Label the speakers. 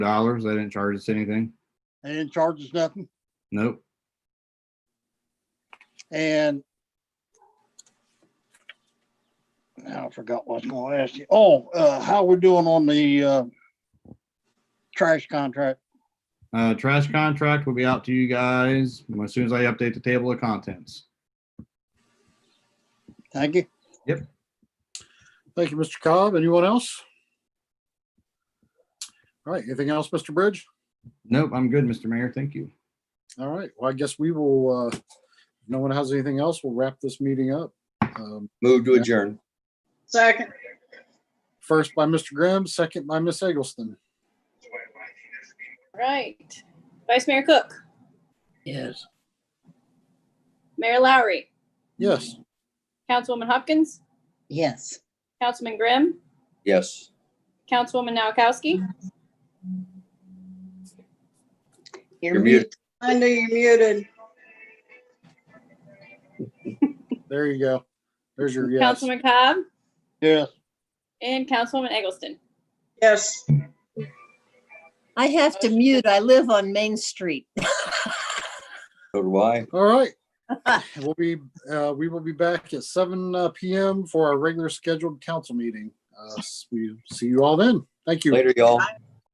Speaker 1: dollars. They didn't charge us anything.
Speaker 2: They didn't charge us nothing.
Speaker 1: Nope.
Speaker 2: And now I forgot what I was gonna ask you. Oh, uh, how we're doing on the, uh, trash contract.
Speaker 1: Uh, trash contract will be out to you guys as soon as I update the table of contents.
Speaker 2: Thank you.
Speaker 3: Thank you, Mr. Cobb. Anyone else? All right, anything else, Mr. Bridge?
Speaker 1: Nope, I'm good, Mr. Mayor. Thank you.
Speaker 3: All right, well, I guess we will, uh, if no one has anything else, we'll wrap this meeting up. Um,
Speaker 4: Move to adjourn.
Speaker 5: Second.
Speaker 3: First by Mr. Grimm, second by Miss Eggleston.
Speaker 5: Right. Vice Mayor Cook,
Speaker 6: Yes.
Speaker 5: Mayor Lowry,
Speaker 3: Yes,
Speaker 5: Councilwoman Hopkins,
Speaker 6: Yes.
Speaker 5: Councilman Grimm,
Speaker 4: Yes.
Speaker 5: Councilwoman Noakowski,
Speaker 4: You're muted.
Speaker 6: I knew you're muted.
Speaker 3: there you go. There's your yes.
Speaker 5: Councilman Cobb,
Speaker 2: Yes.
Speaker 5: and Councilwoman Eggleston.
Speaker 6: Yes.
Speaker 7: I have to mute. I live on Main Street.
Speaker 4: So do I.
Speaker 3: All right. We'll be, uh, we will be back at seven uh, PM for our regular scheduled council meeting. Uh, s- we see you all then. Thank you.
Speaker 4: Later, y'all.